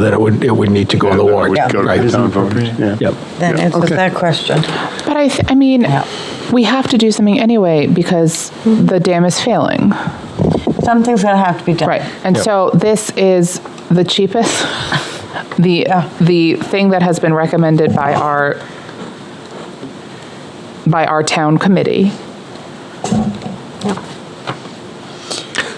then it would, it would need to go on the warrant. Yeah. Go to Right. the town voters, yeah. Yep. Then answer Okay. that question. But I, th- I mean, Yeah. we have to do something anyway because the dam is failing, Something's gonna have to be done. right? And Yep. so this is the cheapest, the Yeah. the thing that has been recommended by our by our town committee.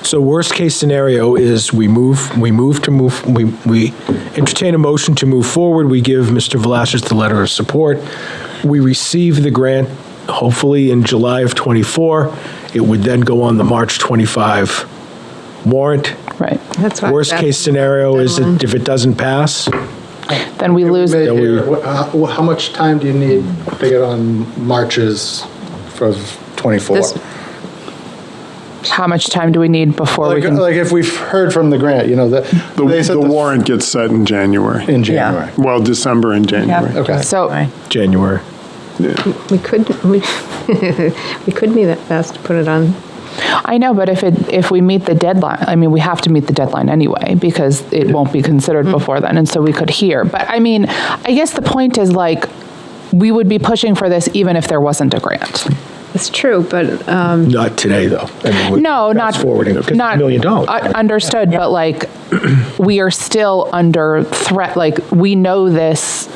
So worst case scenario is we move, we move to move, we, we entertain a motion to move forward. We give Mr. Velazquez the letter of support. We receive the grant hopefully in July of '24. It would then go on the March '25 warrant. Right. That's what- Worst that's case scenario is the it- if it doesn't pass, Then we lose. May That we- here, uh, wh- how wh- how much time do you need to get on marches for 24? This- How much time do we need before we Like, can? like if we've heard from the grant, you know, that. The they said the f- warrant gets set in January, In January. well, December and January. Okay. so January. We could, we we could be that fast to put it on. I know, but if it if we meet the deadline, I mean, we have to meet the deadline anyway because it won't be considered Mm-hmm. before then, and so we could hear. But I mean, I guess the point is like. We would be pushing for this even if there wasn't a grant. It's true, but um, Not today, though. I mean, with No, not fast forwarding, because it's a not million dollars. u- understood, but like we are still under threat. Like we know this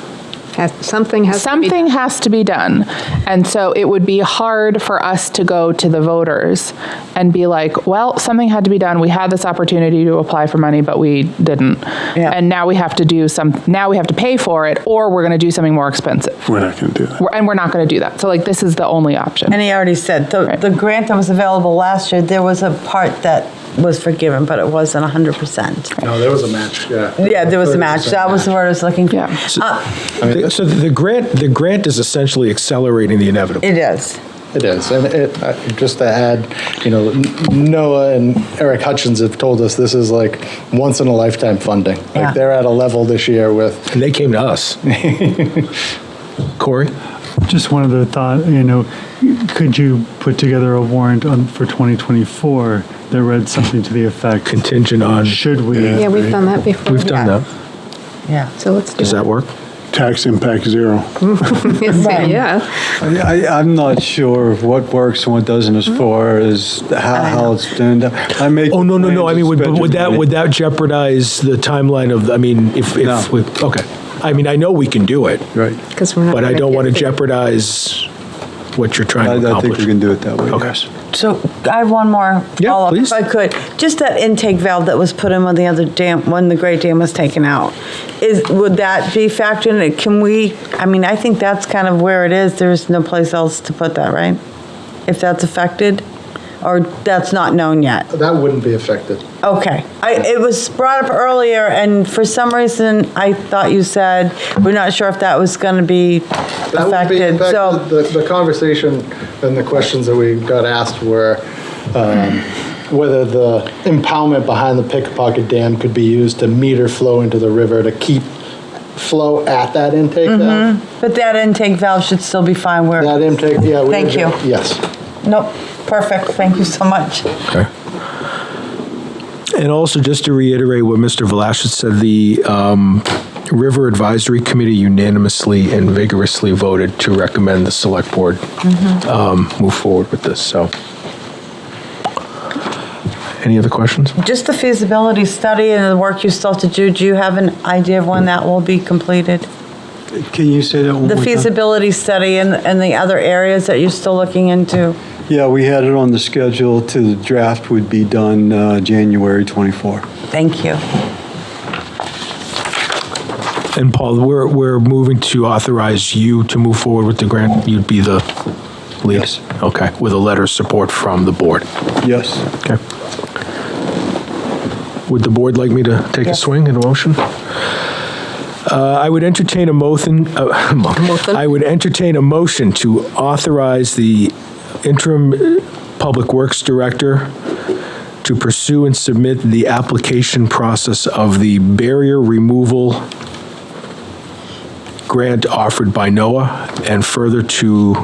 has- something has to be. something has to be done. And so it would be hard for us to go to the voters and be like, well, something had to be done. We had this opportunity to apply for money, but we didn't. Yeah. And now we have to do some, now we have to pay for it, or we're going to do something more expensive. We're not going to do that. We're- And we're not going to do that. So like, this is the only option. And he already said, the, Right. the grant that was available last year, there was a part that was forgiven, but it wasn't hundred percent. No, there was a match, yeah. Yeah, there was a match. That was the word I was looking for. Yeah. Uh, The- So the grant, the grant is essentially accelerating the inevitable. It is. It is, and it, uh, just to add, you know, Noah and Eric Hutchins have told us this is like once in a lifetime funding. Yeah. Like they're at a level this year with, And they came to us. Corey? Just one other thought, you know, could you put together a warrant on, for 2024 that read something to the effect? Contingent on, Should we? Yeah. Yeah, we've done that before. we've done that. Yeah. So let's do Does that it. work? Tax impact zero. Yeah. I, I- I'm not sure of what works and what doesn't as far as how, how it's done. I make. Hmm? Oh, no, no, no. I plans mean, would, to would spend that, money. would that jeopardize the timeline of, I mean, if, No. if, we- okay. I mean, I know we can do it, Right. Because we're not. but I gonna don't get want to the- jeopardize what you're I, trying to I think we accomplish. can do it that way. Okay. yes. So I have one more Yeah, follow-up, please. if I could. Just that intake valve that was put in when the other dam, when the great dam was taken out, is, would that be factored in? Can we, I mean, I think that's kind of where it is. There's no place else to put that, right? If that's affected, or that's not known yet? that wouldn't be affected. Okay. I, it was brought up earlier, and for some reason, I thought you said, we're not sure if that was gonna be That would be, in affected, fact, so, the, the conversation and the questions that we got asked were um, whether the impoundment behind the Pickpocket Dam could be used to meter flow into the river to keep flow at that intake valve. but that intake valve should still be fine where. That intake, yeah. we- Thank you. Yes. Nope, perfect, thank you so much. Okay. And also, just to reiterate what Mr. Velazquez said, the um, River Advisory Committee unanimously and vigorously voted to recommend the Select Board um, move forward with this, so. Any other questions? Just the feasibility study and the work you still have to do, do you have an idea of when that will be completed? Can you say that one The more time? feasibility study and, and the other areas that you're still looking into? Yeah, we had it on the schedule to the draft would be done uh, January 24. Thank you. And Paul, we're, we're moving to authorize you to move forward with the grant. You'd be the lead? Yes. Okay, with a letter of support from the board. Yes. Okay. Would the board like me to take a swing in a motion? Uh, I would entertain a motion, uh, mo- I would entertain a motion to authorize the interim uh, Public Works Director to pursue and submit the application process of the barrier removal grant offered by NOAA, and further to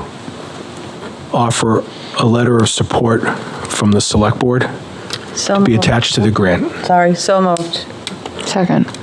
offer a letter of support from the Select Board So be moved. attached to the grant. Sorry, so moved. Second.